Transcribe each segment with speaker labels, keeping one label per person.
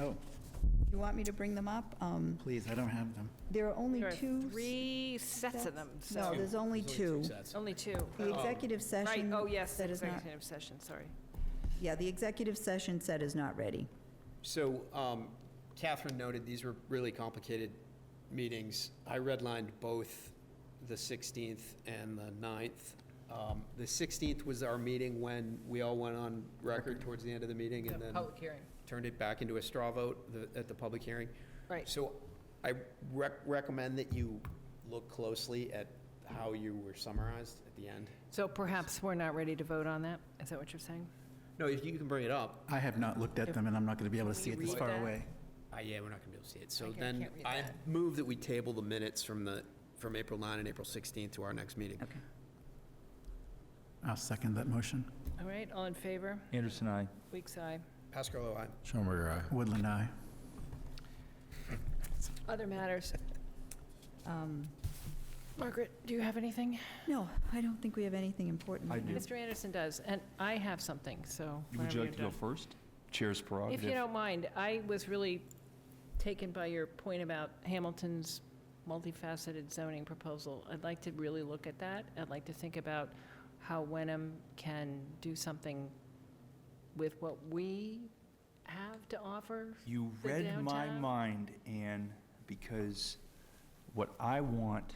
Speaker 1: Oh,
Speaker 2: You want me to bring them up? Um,
Speaker 1: please, I don't have them.
Speaker 2: There are only
Speaker 3: There are
Speaker 2: two.
Speaker 3: three sets of them,
Speaker 2: No,
Speaker 3: so,
Speaker 2: there's only two.
Speaker 3: only two. Oh.
Speaker 2: The executive
Speaker 3: Right,
Speaker 2: session.
Speaker 3: oh, yes,
Speaker 2: That is not,
Speaker 3: executive session, sorry.
Speaker 2: yeah, the executive session set is not ready.
Speaker 4: So um, Catherine noted, these were really complicated meetings. I redlined both the 16th and the 9th. Um, The 16th was our meeting when we all went on record towards the end of the meeting and then
Speaker 5: Public hearing.
Speaker 4: turned it back into a straw vote the- at the public hearing.
Speaker 3: Right.
Speaker 4: So I rec- recommend that you look closely at how you were summarized at the end.
Speaker 3: So perhaps we're not ready to vote on that? Is that what you're saying?
Speaker 4: No, if you can bring it up,
Speaker 1: I have not looked at them, and I'm not going to be able to see it this
Speaker 3: read
Speaker 1: far
Speaker 3: that?
Speaker 1: away.
Speaker 4: Uh, yeah, we're not gonna be able to see it. So
Speaker 5: can't-
Speaker 4: then,
Speaker 5: can't read
Speaker 4: I
Speaker 5: that.
Speaker 4: move that we table the minutes from the, from April 9 and April 16 to our next meeting.
Speaker 2: Okay.
Speaker 1: I'll second that motion.
Speaker 3: All right, all in favor?
Speaker 6: Anderson, I.
Speaker 3: Weeks, aye.
Speaker 4: Pascal, oh, aye.
Speaker 7: Schelberger, aye.
Speaker 1: Woodland, aye.
Speaker 3: Other matters?
Speaker 2: Um,
Speaker 3: Margaret, do you have anything?
Speaker 2: No, I don't think we have anything important.
Speaker 6: I
Speaker 2: right now.
Speaker 6: do.
Speaker 3: Mr. Anderson does, and I have something, so
Speaker 6: Would
Speaker 3: whenever
Speaker 6: you
Speaker 3: you're
Speaker 6: like to go
Speaker 3: done.
Speaker 6: first? Chair's prerogative.
Speaker 3: If you don't mind, I was really taken by your point about Hamilton's multifaceted zoning proposal. I'd like to really look at that. I'd like to think about how Wenham can do something with what we have to offer.
Speaker 6: You
Speaker 3: the
Speaker 6: read my
Speaker 3: downtown.
Speaker 6: mind, Anne, because what I want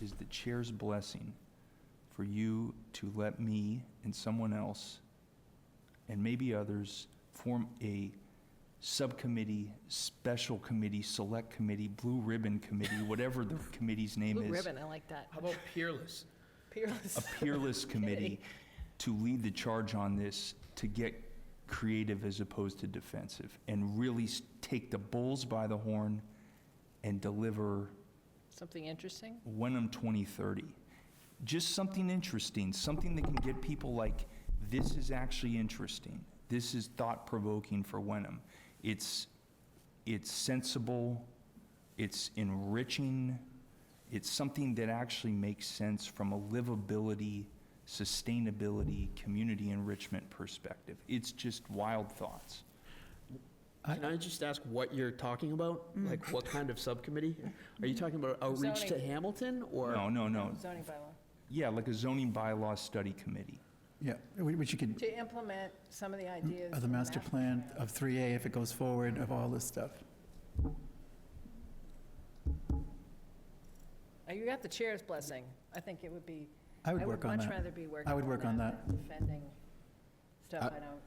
Speaker 6: is the chair's blessing for you to let me and someone else, and maybe others, form a subcommittee, special committee, select committee, blue ribbon committee, whatever the committee's name
Speaker 3: Blue
Speaker 6: is.
Speaker 3: ribbon, I like that.
Speaker 4: How about peerless?
Speaker 3: Peerless.
Speaker 6: a peerless committee to lead the charge on this, to get creative as opposed to defensive, and really s- take the bulls by the horn and deliver
Speaker 3: Something interesting?
Speaker 6: Wenham 2030. Just something interesting, something that can get people like, this is actually interesting. This is thought-provoking for Wenham. It's, it's sensible, it's enriching, it's something that actually makes sense from a livability, sustainability, community enrichment perspective. It's just wild thoughts.
Speaker 4: Can I just ask what you're talking about? Like, what kind of subcommittee? Are you talking about outreach to
Speaker 3: Zoning.
Speaker 4: Hamilton, or?
Speaker 6: No, no, no.
Speaker 3: Zoning bylaw.
Speaker 6: Yeah, like a zoning bylaw study committee.
Speaker 1: Yeah, wh- which you could,
Speaker 3: To implement some of the ideas.
Speaker 1: of uh, the
Speaker 3: in
Speaker 1: master
Speaker 3: that.
Speaker 1: plan, of 3A, if it goes forward, of all this stuff.
Speaker 3: Uh, You got the chair's blessing. I think it would be.
Speaker 1: I would work on
Speaker 3: much
Speaker 1: that.
Speaker 3: rather be working.
Speaker 1: I would work on
Speaker 3: than Defending stuff
Speaker 7: I-
Speaker 3: I don't.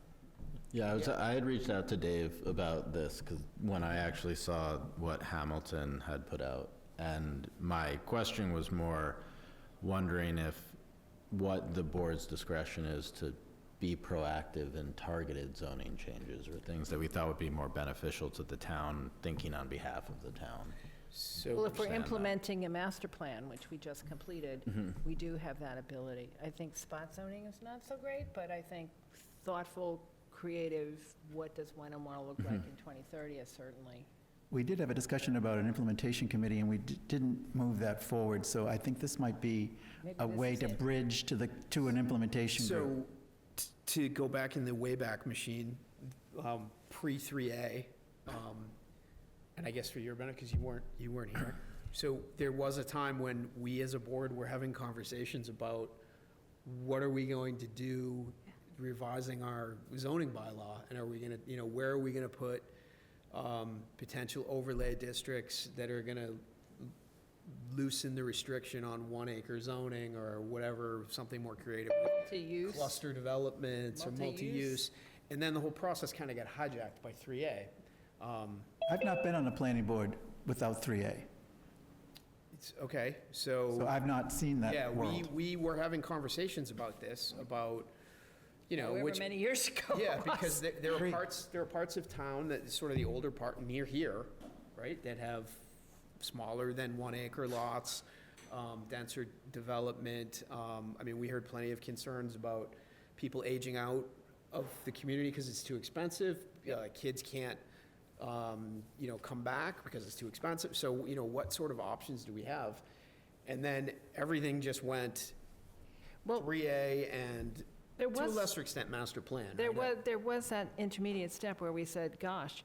Speaker 7: Yeah, I was, I had reached out to Dave about this, because when I actually saw what Hamilton had put out, and my question was more wondering if, what the board's discretion is to be proactive in targeted zoning changes, or things that we thought would be more beneficial to the town, thinking on behalf of the town.
Speaker 3: Well,
Speaker 4: So,
Speaker 3: if we're
Speaker 7: understand that.
Speaker 3: implementing a master plan, which we just completed,
Speaker 4: Mm-hmm.
Speaker 3: we do have that ability. I think spot zoning is not so great, but I think thoughtful, creative, what does Wenham want to look
Speaker 4: Mm-hmm.
Speaker 3: like in 2030 is certainly.
Speaker 1: We did have a discussion about an implementation committee, and we d- didn't move that forward, so I think this might be
Speaker 3: Maybe
Speaker 1: a
Speaker 3: this
Speaker 1: way
Speaker 3: is
Speaker 1: to
Speaker 3: it.
Speaker 1: bridge to the, to an implementation group.
Speaker 4: so t- to go back in the Wayback Machine, um, pre-3A, um, and I guess for your benefit, because you weren't, you weren't here. So there was a time when we as a board were having conversations about what are we going to do revising our zoning bylaw? And are we gonna, you know, where are we gonna put, um, potential overlay districts that are gonna loosen the restriction on one acre zoning or whatever, something more creative?
Speaker 3: To use,
Speaker 4: cluster developments or multi-use.
Speaker 3: Multi-use.
Speaker 4: And then the whole process kind of got hijacked by 3A. Um,
Speaker 1: I've not been on a planning board without 3A,
Speaker 4: It's, okay,
Speaker 1: so
Speaker 4: so,
Speaker 1: I've not seen
Speaker 4: yeah,
Speaker 1: that
Speaker 4: we,
Speaker 1: world.
Speaker 4: we were having conversations about this, about, you know,
Speaker 3: however
Speaker 4: which.
Speaker 3: many years ago.
Speaker 4: Yeah,
Speaker 3: it
Speaker 4: because
Speaker 3: was.
Speaker 4: there there are
Speaker 1: Great.
Speaker 4: parts, there are parts of town that, sort of the older part near here, right, that have smaller than one acre lots, um, denser development. Um, I mean, we heard plenty of concerns about people aging out of the community because it's too expensive. Uh, Kids can't, um, you know, come back because it's too expensive. So, you know, what sort of options do we have? And then everything just went 3A and,
Speaker 3: There
Speaker 4: to a
Speaker 3: was-
Speaker 4: lesser extent, master plan.
Speaker 3: There
Speaker 4: right?
Speaker 3: was, there was that intermediate step where we said, gosh,